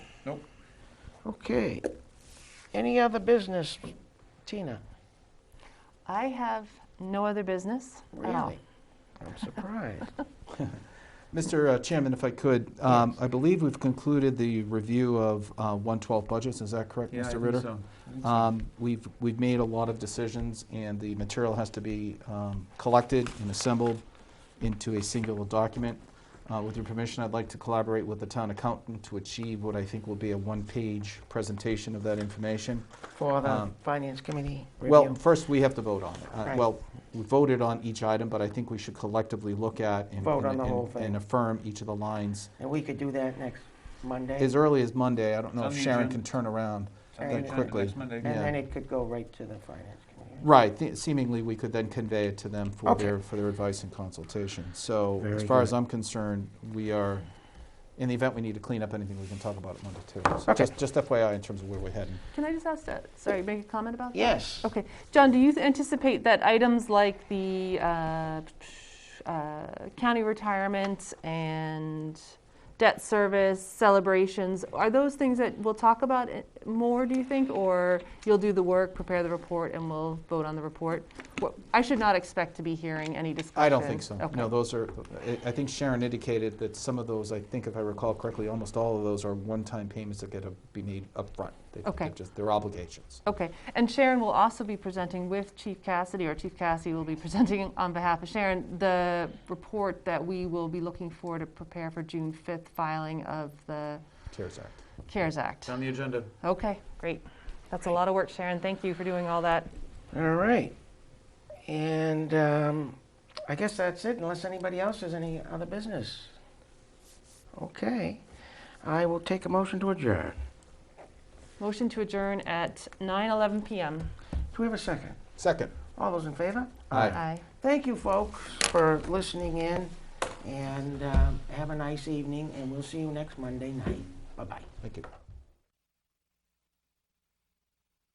Nope. Okay. Any other business, Tina? I have no other business at all. Really? I'm surprised. Mr. uh, Chairman, if I could, um, I believe we've concluded the review of uh, 112 budgets, is that correct, Yeah, I Mr. think Ritter? so. I think so. Um, We've, we've made a lot of decisions, and the material has to be um, collected and assembled into a singular document. Uh, With your permission, I'd like to collaborate with the town accountant to achieve what I think will be a one-page presentation of that information. For the Um, Finance Committee Well, review? first, we have to vote on it. Uh, Right. Well, we voted on each item, but I think we should collectively look at and- Vote on and- the whole and- thing. and affirm each of the lines And we could do that next Monday? as early as Monday. I don't know It's if on the Sharon agenda. can turn around. Sounds that like that quickly. Next Monday. And yeah. then it could go right to the Finance Committee. Right, th- seemingly, we could then convey it to them for Okay. their, for their advice and consultation. So as Very far as good. I'm concerned, we are, in the event we need to clean up anything, we can talk about it Monday too. So Okay. just- Just FYI in terms of where we're heading. Can I just ask that? Sorry, make a comment about that? Yes. Okay. John, do you anticipate that items like the uh, uh, county retirement and debt service celebrations, are those things that we'll talk about i- more, do you think? Or you'll do the work, prepare the report, and we'll vote on the report? What- I should not expect to be hearing any discussion. I don't think so. Okay. No, those are, I- I think Sharon indicated that some of those, I think if I recall correctly, almost all of those are one-time payments that get to be made upfront. They- Okay. they're just- They're obligations. Okay, and Sharon will also be presenting with Chief Cassidy, or Chief Cassidy will be presenting on behalf of Sharon, the report that we will be looking for to prepare for June 5th filing of the CARES Act. CARES It's Act. on the agenda. Okay, great. That's a lot of work, Sharon. Thank you for doing all that. All right. And um, I guess that's it, unless anybody else has any other business. Okay. I will take a motion to adjourn. Motion to adjourn at 9:11 PM. Do we have a second? Second. All those in favor? Aye. Thank you, folks, for listening in, and um, have a nice evening, and we'll see you next Monday night. Bye-bye. Thank you.